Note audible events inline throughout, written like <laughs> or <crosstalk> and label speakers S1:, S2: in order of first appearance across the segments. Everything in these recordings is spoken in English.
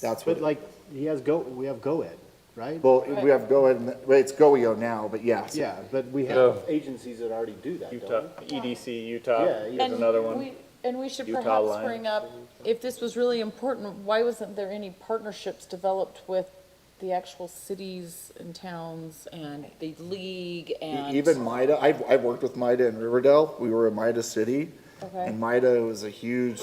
S1: That's what,
S2: But
S1: it-
S2: like, he has go, we have GoEd, right?
S1: well, we have Go Ed, and- well, it's GoEO now, but yes.
S2: Yeah, but we have agencies that already do that,
S3: Utah,
S2: don't
S3: EDC E Utah
S2: Yeah,
S3: is
S2: yeah.
S4: And
S3: another one.
S4: we- And we should
S3: Utah
S4: perhaps
S3: line.
S4: bring up, if this was really important, why wasn't there any partnerships developed with the actual cities and towns and the league
S1: E-
S4: and?
S1: Even MIDA, I've, I've worked with MIDA in Riverdale, we were a MIDA city.
S4: Okay.
S1: And MIDA was a huge,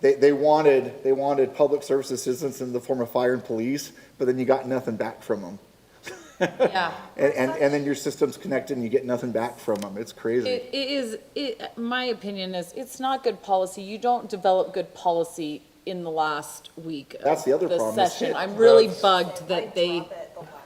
S1: they, they wanted, they wanted public service assistance in the form of fire and police, but then you got nothing back from them.
S4: Yeah.
S1: And, and, and then your system's connected and you get nothing back from them, it's crazy.
S4: It, it is, it, my opinion is, it's not good policy. You don't develop good policy in the last week of
S1: That's the other
S4: the
S1: problem, is
S4: session.
S1: it-
S4: I'm really bugged that they.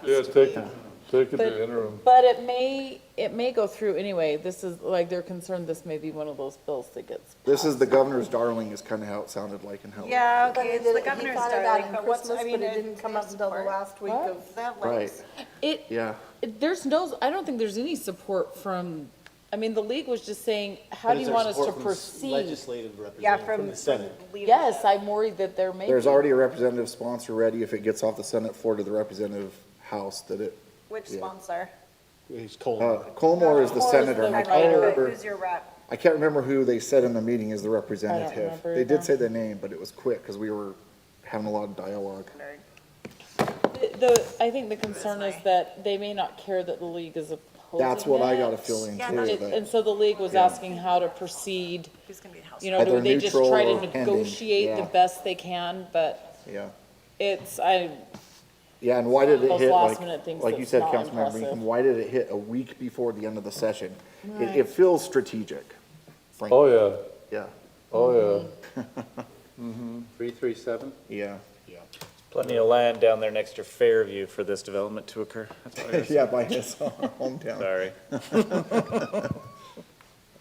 S5: Yeah, take it, take it to interim.
S4: But, but it may, it may go through anyway. This is, like, they're concerned this may be one of those bills that gets.
S1: This is the governor's darling is kind of how it sounded like in Helen.
S6: Yeah,
S7: But
S6: okay,
S7: it
S6: it's the
S7: didn't- he
S6: governor's
S7: thought about
S6: darling,
S7: it
S6: but what's,
S7: Christmas,
S6: I mean,
S7: but it
S6: it
S7: didn't
S6: didn't come
S7: pass
S6: up until the
S7: for it.
S6: last week
S4: What?
S6: of that
S1: Right,
S6: last.
S4: It,
S1: yeah.
S4: it- there's no, I don't think there's any support from, I mean, the league was just saying, how
S2: But is
S4: do you
S2: there
S4: want us to
S2: support from s-
S4: proceed?
S2: Legislative
S6: Yeah,
S2: representative from
S6: from,
S2: the Senate.
S6: from leadership.
S4: Yes, I'm worried that there may be.
S1: There's already a representative sponsor ready if it gets off the Senate floor to the representative house that it,
S6: Which
S1: Yeah.
S6: sponsor?
S2: He's
S1: uh,
S2: cold.
S1: Colmore is the
S4: Colmore is
S1: senator.
S4: the
S1: and I
S6: Like,
S1: can't
S4: writer.
S1: remember-
S6: Who's your rep?
S1: I can't remember who they said in the meeting is the representative.
S4: remember
S1: They
S4: either.
S1: did say the name, but it was quick because we were having a lot of dialogue.
S4: The, I think the concern is that they may not care that the league is opposing
S1: That's what I
S4: it.
S1: got a feeling
S6: Yeah,
S1: too,
S4: It- And
S1: but
S4: so the league was asking how to proceed,
S6: Who's gonna be the house?
S4: you know,
S1: Either
S4: do they just
S1: neutral
S4: try
S1: or
S4: to
S1: pending,
S4: negotiate the
S1: yeah.
S4: best they can, but
S1: yeah.
S4: it's, I,
S1: Yeah, and why did it
S4: Those
S1: hit,
S4: last minute
S1: like,
S4: things
S1: like you
S4: that's
S1: said,
S4: not
S1: Councilmember Meacham,
S4: impressive.
S1: why did it hit a week before the end of the session? It, it feels strategic,
S5: Oh,
S1: frankly.
S5: yeah,
S1: Yeah,
S5: oh, yeah.
S3: Three, three, seven?
S1: yeah.
S3: Plenty of land down there next to Fairview for this development to occur. That's what I <laughs> was-
S1: Yeah, by his <laughs> hometown.
S3: Sorry.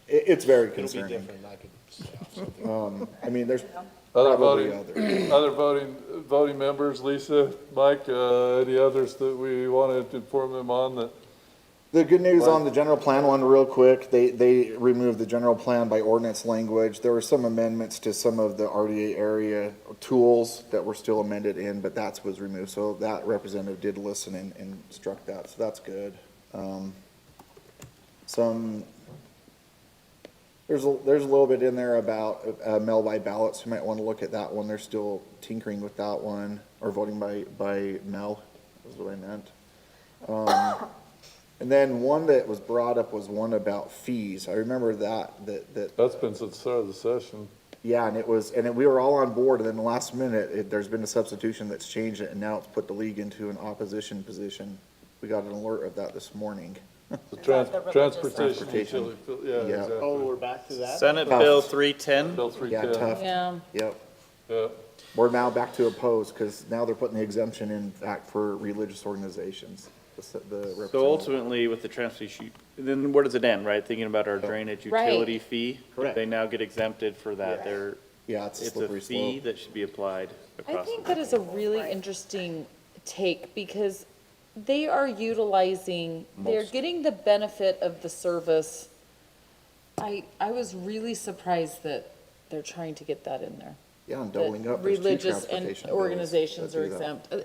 S1: It, it's very
S2: It'll be
S1: concerning.
S2: different, I could,
S1: I mean, there's
S5: Other
S1: probably
S5: voting,
S1: others.
S5: Mm-hmm. other voting, voting members, Lisa, Mike, uh, any others that we wanted to inform them on that?
S1: The good news on the general plan one, real quick, they, they removed the general plan by ordinance language. There were some amendments to some of the RDA area tools that were still amended in, but that was removed. So that representative did listen and, and struck that, so that's good. Um, Some, there's a, there's a little bit in there about, uh, mail by ballots. You might want to look at that one. They're still tinkering with that one, or voting by, by mail, is what I meant. And then one that was brought up was one about fees. I remember that, that, that,
S5: That's been since the start of the session.
S1: yeah, and it was, and it- we were all on board, and then the last minute, it, there's been a substitution that's changed it, and now it's put the league into an opposition position. We got an alert of that this morning.
S5: The trans-
S4: the religious-
S5: transportation
S1: Transportation.
S5: utility, bill- yeah,
S1: Yeah.
S2: oh,
S5: exactly.
S2: we're back to that?
S3: Senate Bill 310.
S5: Bill
S1: Yeah,
S5: 310.
S1: tough,
S4: yeah.
S1: yep.
S5: Yeah.
S1: We're now back to oppose, because now they're putting the exemption in act for religious organizations, the, s- the
S3: So
S1: representative.
S3: ultimately, with the transfer issue, then where does it end, right? Thinking about our drainage
S4: Right.
S3: utility fee?
S2: Correct.
S3: They now get exempted for that.
S2: Yeah.
S3: They're,
S1: Yeah, it's a
S3: it's a
S1: slippery
S3: fee
S1: slope.
S3: that should be applied
S4: I
S3: across.
S4: think
S3: the-
S4: that is a really interesting take because they are utilizing, they're getting the benefit of the service. I, I was really surprised that they're trying to get that in there.
S1: Yeah, and
S4: that
S1: doubling up, there's two
S4: Religious and
S1: transportation bills
S4: organizations
S1: that
S4: are
S1: do that.
S4: exempt. Uh,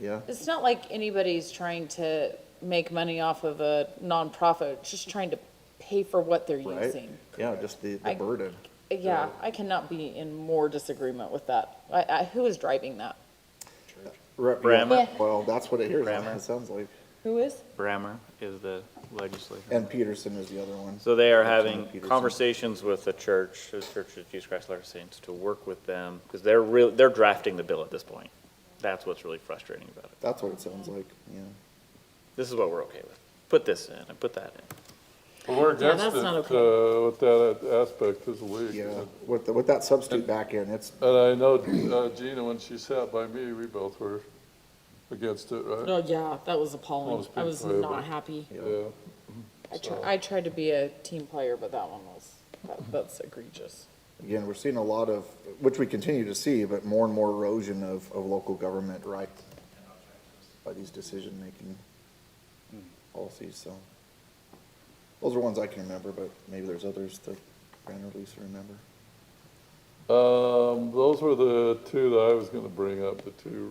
S1: Yeah,
S4: It's not like anybody's trying to make money off of a nonprofit, it's just trying to pay for what they're
S1: right?
S4: using.
S1: Yeah, just the, the
S4: I-
S1: burden.
S4: Yeah, I cannot be in more disagreement with that. I, I, who is driving that?
S1: Rep-
S3: Brammer.
S1: Well, that's what it hears,
S3: Brammer.
S1: it sounds like.
S4: Who is?
S3: Brammer is the legislator.
S1: And Peterson is the other one.
S3: So they are
S1: Representative
S3: having
S1: Peterson.
S3: conversations with the church, the Church of Jesus Christ of Latter-day Saints, to work with them, because they're real, they're drafting the bill at this point. That's what's really frustrating about it.
S1: That's what it sounds like, yeah.
S3: This is what we're okay with. Put this in and put that in.
S5: Well, We're
S4: Yeah,
S5: against
S4: that's
S5: it,
S4: not
S5: uh, with that aspect as a league.
S1: Yeah, with, the- with that substitute back in, it's,
S5: And I know uh, Gina, when she sat by me, we both were against it, right?
S4: Oh, yeah, that was appalling.
S5: Most
S4: I was
S5: people,
S4: not
S5: yeah.
S4: happy.
S5: Yeah.
S4: I tried, I tried to be a team player, but that one was, that- that's egregious.
S1: again, we're seeing a lot of, which we continue to see, but more and more erosion of, of local government right by these decision-making policies, so. Those are ones I can remember, but maybe there's others that Brandon or Lisa remember.
S5: Um, those were the two that I was gonna bring up, the two